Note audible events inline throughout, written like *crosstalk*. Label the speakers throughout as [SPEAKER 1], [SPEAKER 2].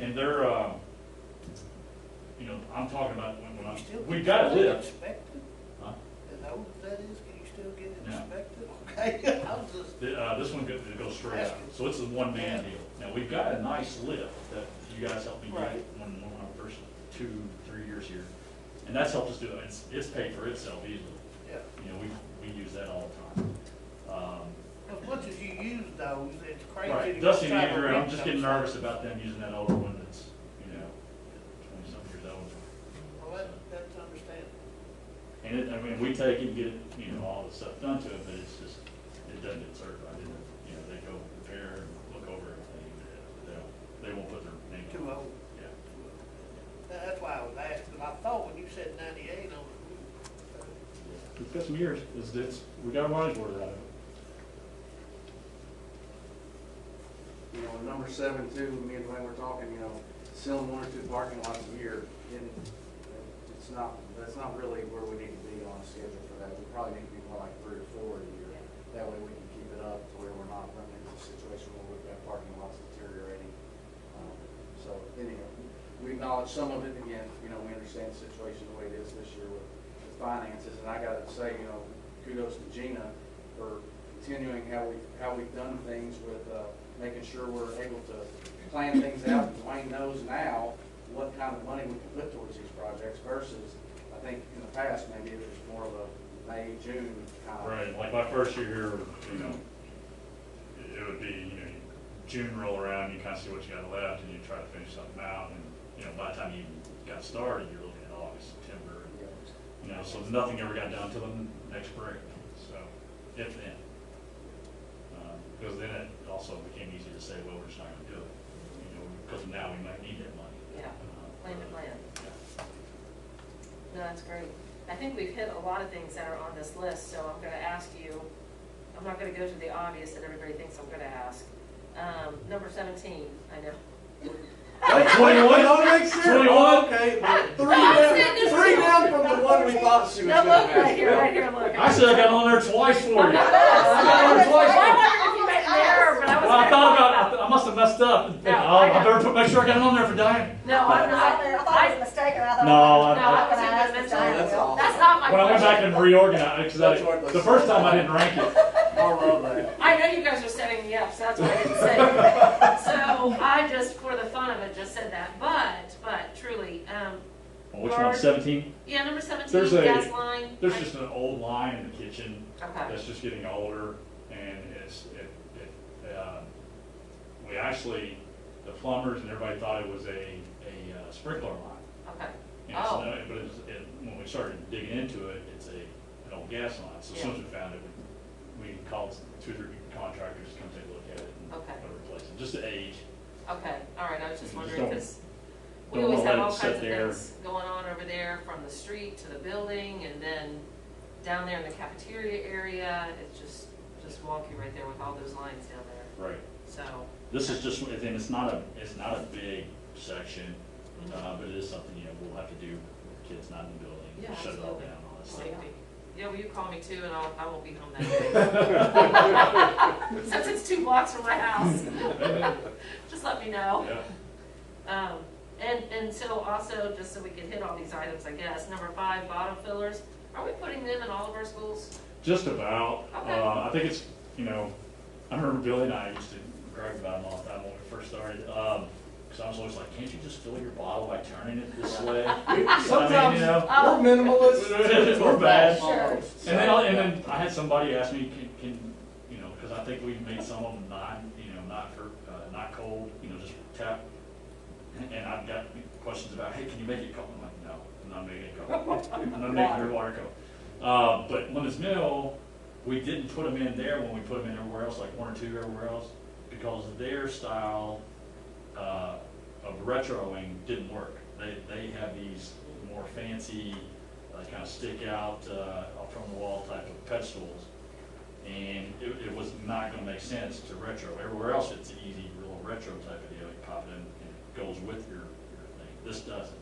[SPEAKER 1] and they're, uh, you know, I'm talking about when, when
[SPEAKER 2] Can you still
[SPEAKER 1] I,
[SPEAKER 2] get
[SPEAKER 1] we got
[SPEAKER 2] your
[SPEAKER 1] lift.
[SPEAKER 2] oil inspected?
[SPEAKER 1] Huh?
[SPEAKER 2] As old as that is, can you still get it
[SPEAKER 1] No.
[SPEAKER 2] inspected? Okay, *laughs* I was just,
[SPEAKER 1] Th- uh, this one goes, it goes straight out, so it's a one-man deal. Now, we've got a nice lift that you guys helped me get
[SPEAKER 2] Right.
[SPEAKER 1] when, when I first, two, three years here. And that's helped us do it, it's, it's paid for itself easily,
[SPEAKER 2] yeah.
[SPEAKER 1] you know, we, we use that all the time. Um,
[SPEAKER 2] As much as you use those, it's crazy.
[SPEAKER 1] Right,
[SPEAKER 2] to
[SPEAKER 1] Dusty and
[SPEAKER 2] try to
[SPEAKER 1] Andrew, I'm
[SPEAKER 2] reach
[SPEAKER 1] just getting
[SPEAKER 2] those.
[SPEAKER 1] nervous about them using that older one that's, you know, twenty-something years old.
[SPEAKER 2] Well, that, that's understandable.
[SPEAKER 1] And it, I mean, we take it, and get, you know, all the stuff done to it, but it's just, it doesn't get certified, it, you know, they go repair, and look over everything, but they don't, they won't put their name on
[SPEAKER 2] Too
[SPEAKER 1] it.
[SPEAKER 2] old.
[SPEAKER 1] Yeah,
[SPEAKER 2] Now, That's why I was asking, I thought when you said ninety-eight on the roof,
[SPEAKER 1] It's got some years, it's, it's, we got a money's worth out of it.
[SPEAKER 3] You know, number seven too, me and Wayne were talking, you know, selling one or two parking lots a year, and it's not, that's not really where we need to be on schedule for that. We probably need to be more like three or four a year. That way we can keep it up to where we're not running into a situation where we've got parking lots deteriorating. Um, So anyhow, we acknowledge some of it, again, you know, we understand the situation the way it is this year with the finances, and I gotta say, you know, kudos to Gina for continuing how we, how we've done things with, uh, making sure we're able to plan things out. Wayne knows now what kind of money we can put towards these projects versus, I think in the past, maybe it was more of a May, June kind of.
[SPEAKER 1] Right, like my first year here, you know, it- it would be, you know, June roll around, you kind of see what you got left, and you try to finish something out, and, you know, by the time you got started, you're looking at August, September, and, you know, so nothing ever got done till the next break, so, if then. Um, Because then it also became easy to say, well, we're just not gonna do it, you know, because now we might need that money.
[SPEAKER 4] Yeah,
[SPEAKER 1] Uh,
[SPEAKER 4] plan to plan.
[SPEAKER 1] yeah.
[SPEAKER 4] No, that's great. I think we've hit a lot of things that are on this list, so I'm gonna ask you, I'm not gonna go to the obvious that everybody thinks I'm gonna ask. Um, number seventeen, I know.
[SPEAKER 3] Twenty-one, don't make sense.
[SPEAKER 1] 21?
[SPEAKER 3] Okay, but three
[SPEAKER 4] I'm
[SPEAKER 3] down,
[SPEAKER 4] sitting in
[SPEAKER 3] three
[SPEAKER 4] front.
[SPEAKER 3] down from the one we thought she was
[SPEAKER 4] No,
[SPEAKER 3] gonna
[SPEAKER 4] look,
[SPEAKER 3] have.
[SPEAKER 4] right here, right here, look.
[SPEAKER 1] I should have got on there twice for you. I got on there twice for you.
[SPEAKER 4] I wondered if you meant there, but I
[SPEAKER 1] Well,
[SPEAKER 4] was.
[SPEAKER 1] I
[SPEAKER 4] gonna
[SPEAKER 1] thought
[SPEAKER 4] call
[SPEAKER 1] about, I th- I must have messed up. and-
[SPEAKER 4] No,
[SPEAKER 1] Oh, I
[SPEAKER 4] I
[SPEAKER 1] better put, make sure I got it on there for Diane.
[SPEAKER 4] it. No,
[SPEAKER 5] I
[SPEAKER 4] I'm
[SPEAKER 5] was out
[SPEAKER 4] not.
[SPEAKER 5] there, I thought it was mistaken, I thought.
[SPEAKER 1] No, I-
[SPEAKER 4] No, I wasn't
[SPEAKER 5] I
[SPEAKER 4] gonna
[SPEAKER 5] was
[SPEAKER 4] mention that.
[SPEAKER 5] gonna
[SPEAKER 3] That's all.
[SPEAKER 4] That's not my
[SPEAKER 1] When I went back
[SPEAKER 4] question.
[SPEAKER 1] and reorganized, because
[SPEAKER 3] That's what
[SPEAKER 1] I,
[SPEAKER 3] it
[SPEAKER 1] the
[SPEAKER 3] was.
[SPEAKER 1] first time I didn't rank it.
[SPEAKER 3] I love that.
[SPEAKER 4] I know you guys are setting me up, so that's what I didn't say.
[SPEAKER 1] *laughs*
[SPEAKER 4] So I just, for the fun of it, just said that, but, but truly, um,
[SPEAKER 1] Which one, seventeen?
[SPEAKER 4] yeah, number seventeen,
[SPEAKER 1] There's a-
[SPEAKER 4] gas line.
[SPEAKER 1] There's
[SPEAKER 4] I-
[SPEAKER 1] just an old line in the kitchen
[SPEAKER 4] Okay.
[SPEAKER 1] that's just getting older and it's, it, it, uh, we actually, the plumbers and everybody thought it was a, a uh, sprinkler line.
[SPEAKER 4] Okay,
[SPEAKER 1] And it's
[SPEAKER 4] Oh.
[SPEAKER 1] not- But it's, it, when we started digging into it, it's a, an old gas line, so as soon as we found it, we, we called two, or three contractors to come take a look at it and
[SPEAKER 4] Okay.
[SPEAKER 1] and replace it, just the age.
[SPEAKER 4] okay, all right, I was just
[SPEAKER 1] You just
[SPEAKER 4] wondering,
[SPEAKER 1] don't-
[SPEAKER 4] because we
[SPEAKER 1] don't
[SPEAKER 4] always
[SPEAKER 1] wanna
[SPEAKER 4] have
[SPEAKER 1] let it
[SPEAKER 4] all
[SPEAKER 1] sit
[SPEAKER 4] kinds of
[SPEAKER 1] there.
[SPEAKER 4] things going on over there, from the street to the building, and then down there in the cafeteria area, it's just, just wonky right there with all those lines down there,
[SPEAKER 1] Right.
[SPEAKER 4] so,
[SPEAKER 1] This is just, and it's not a, it's not a big section,
[SPEAKER 4] Mm-hmm.
[SPEAKER 1] uh, but it is something, you know, we'll have to do, with kids not in the
[SPEAKER 4] yeah,
[SPEAKER 1] building, shut it all
[SPEAKER 4] absolutely.
[SPEAKER 1] down, all that stuff.
[SPEAKER 4] Safety. Yeah, well, you call me too, and I'll, I won't be home
[SPEAKER 1] *laughs*
[SPEAKER 4] that day. *laughs* Since it's two blocks from my house, *laughs* just let me know.
[SPEAKER 1] Yeah.
[SPEAKER 4] Um, and, and so also, just so we can hit all these items, I guess, number five, bottom fillers, are we putting them in all of our schools?
[SPEAKER 1] Just about.
[SPEAKER 4] Okay.
[SPEAKER 1] Uh, I think it's, you know, I remember Billy and I used to gripe about them all the time when we first started. Um 'cause cause I was always like, can't you just fill your bottle by turning it this way?
[SPEAKER 3] Sometimes
[SPEAKER 4] Oh.
[SPEAKER 3] we're minimalists.
[SPEAKER 1] We're bad.
[SPEAKER 5] Sure.
[SPEAKER 1] And then, I- and then I had somebody ask me, can, can, you know, cause I think we made some of them not, you know, not for, uh, not cold, you know, just tap. And I've got questions about, hey, can you make it cold? I'm like, no, I'm not making it cold. I'm not making your water cold. Uh, but Lemons Mill, we didn't put them in there when we put them in everywhere else, like one or two everywhere else, because their style, uh, of retroing didn't work. They, they have these more fancy, uh, kind of stick out, uh, off from the wall type of pedestals. And it, it was not gonna make sense to retro. Everywhere else, it's an easy, real retro type of deal. You pop it in and it goes with your, your thing. This doesn't.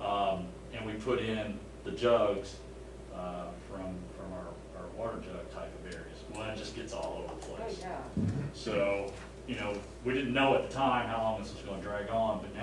[SPEAKER 1] Um, and we put in the jugs, uh, from, from our, our water jug type of areas. Well, it just gets all over the place.
[SPEAKER 4] Oh, yeah.
[SPEAKER 1] So, you know, we didn't know at the time how long this was gonna drag on, but now